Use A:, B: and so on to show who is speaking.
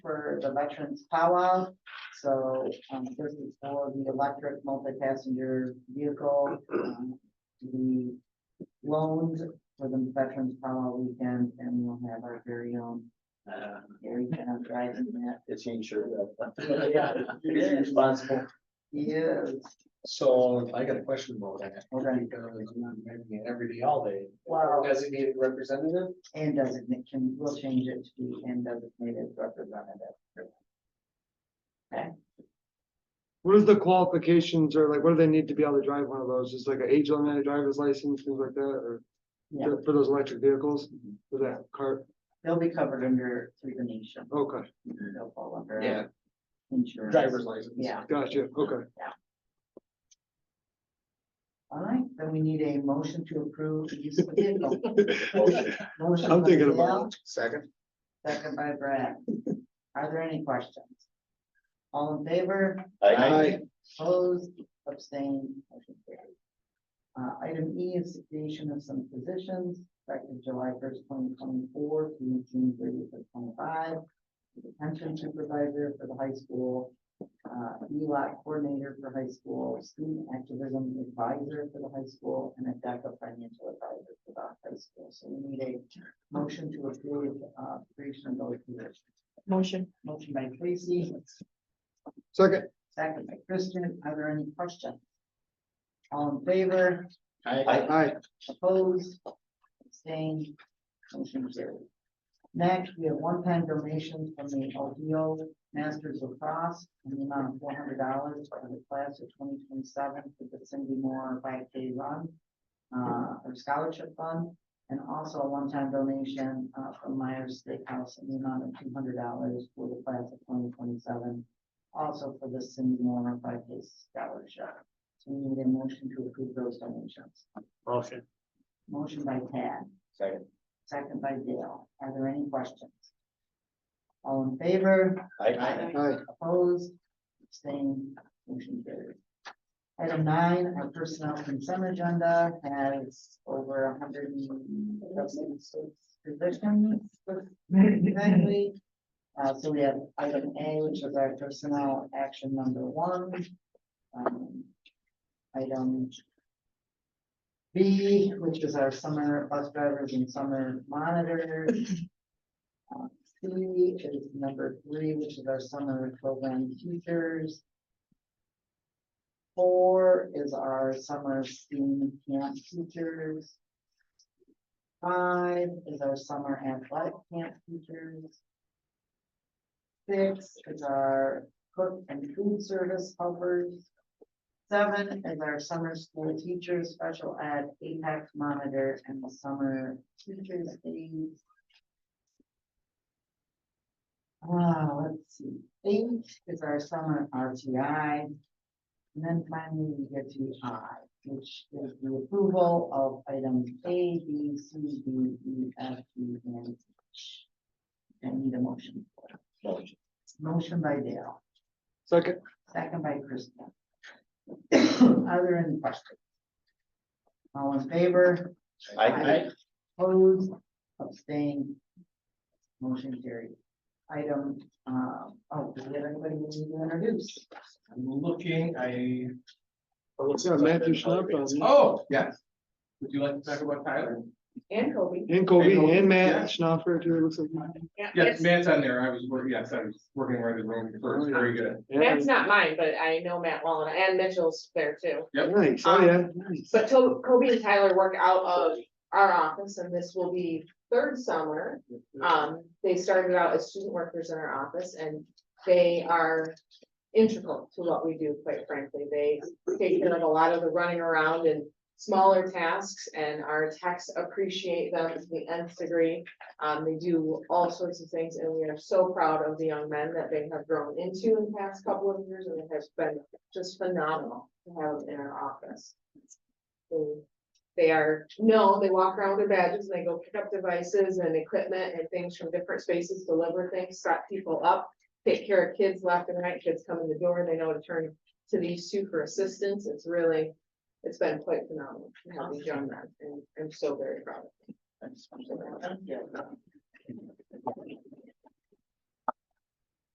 A: the veterans powwow. So, um, this is for the electric multi-passenger vehicle, um, to be loaned for the veterans powwow weekend, and we'll have our very own
B: Uh,
A: Gary Kent driving that.
B: It's insured.
A: Yeah.
B: He's responsible.
A: Yes,
C: So I got a question about that.
A: Okay.
C: Because I'm not making it every day, all day.
A: Wow.
C: Designated representative?
A: and designation, we'll change it to be and designated representative.
D: What is the qualifications or like, what do they need to be able to drive one of those? Just like an age limit, a driver's license, things like that, or
A: Yeah.
D: for- for those electric vehicles,
C: Mm-hmm.
D: for that car?
A: They'll be covered under through the nation.
D: Okay,
A: They'll fall under.
C: Yeah.
A: Insurance.
C: Driver's license.
A: Yeah,
D: gotcha, okay.
A: all right, then we need a motion to approve the use of vehicle. Motion
D: I'm
A: by
D: thinking
A: Dale,
D: about.
C: Second.
A: Second by Brad. Are there any questions? All in favor,
B: I,
A: opposed, abstained, motion carried. Uh, item E is the creation of some positions effective July first, twenty twenty-four through June thirtieth of twenty-five. The Pension supervisor for the high school, uh, ELAC coordinator for high school, student activism advisor for the high school, and a DECA financial advisor for the high school. So we need a motion to approve, uh, creation of those positions.
E: Motion.
A: Motion by Tracy,
D: Second,
A: Second by Kristen, are there any questions? All in favor,
B: I,
D: aye,
A: opposed, abstained, motion carried. Next, we have one-time donation from the Ohio Masters of Cross in the amount of four hundred dollars for the class of twenty twenty-seven for the Cindy Moore five K run. Uh, or scholarship fund, and also a one-time donation, uh, from Myers Steakhouse in the amount of two hundred dollars for the class of twenty twenty-seven. Also for the Cindy Moore five K scholarship. So we need a motion to approve those donations.
C: Motion.
A: Motion by Tad,
B: Second.
A: second by Dale. Are there any questions? All in favor?
B: I,
D: aye,
A: Opposed, abstained, motion carried. Item nine, our personnel consent agenda has over a hundred and seventy-six positions. Exactly. Uh, so we have item A, which is our personnel action number one. Um, Item B, which is our summer bus drivers and summer monitors. C Uh, is number three, which is our summer program teachers. Four is our summer STEAM camp teachers. Five is our summer athletic camp teachers. Six is our cook and food service helpers. Seven is our summer school teachers, special ed, APEX monitor, and the summer teachers aides. Ah, let's see, eight is our summer RTI. And then finally, we get to I, which is the approval of items A, B, C, D, E, F, G, and H. I need a motion.
B: Motion.
A: Motion by Dale,
D: second,
A: second by Kristen. Are there any questions? All in favor?
B: I,
A: Opposed, abstained. Motion carried. Item, uh, oh, do we have anybody we need to introduce?
C: I'm looking, I.
D: yeah, Matthew Schnapp, um,
C: Oh, yes. Would you like to talk about Tyler?
E: And Kobe.
D: and Kobe, and Matt Schnapper, too, it looks like.
C: Yes, Matt's on there. I was, wor- yes, I was working right in the room first. Very good.
D: Yeah,
E: Matt's not mine, but I know Matt well, and- and Mitchell's there too.
D: Nice, oh, yeah, nice.
E: But To- Kobe and Tyler work out of our office, and this will be third summer. Um, they started out as student workers in our office, and they are integral to what we do, quite frankly. They take care of a lot of the running around and smaller tasks, and our techs appreciate them to the nth degree. Um, they do all sorts of things, and we are so proud of the young men that they have grown into in the past couple of years, and it has been just phenomenal to have them in our office. They- They are, no, they walk around with their badges, and they go pick up devices and equipment and things from different spaces, deliver things, set people up, take care of kids left and right, kids come in the door, they know to turn to these two for assistance, it's really, it's been quite phenomenal to have these young men, and I'm so very proud of them.
A: Thank you.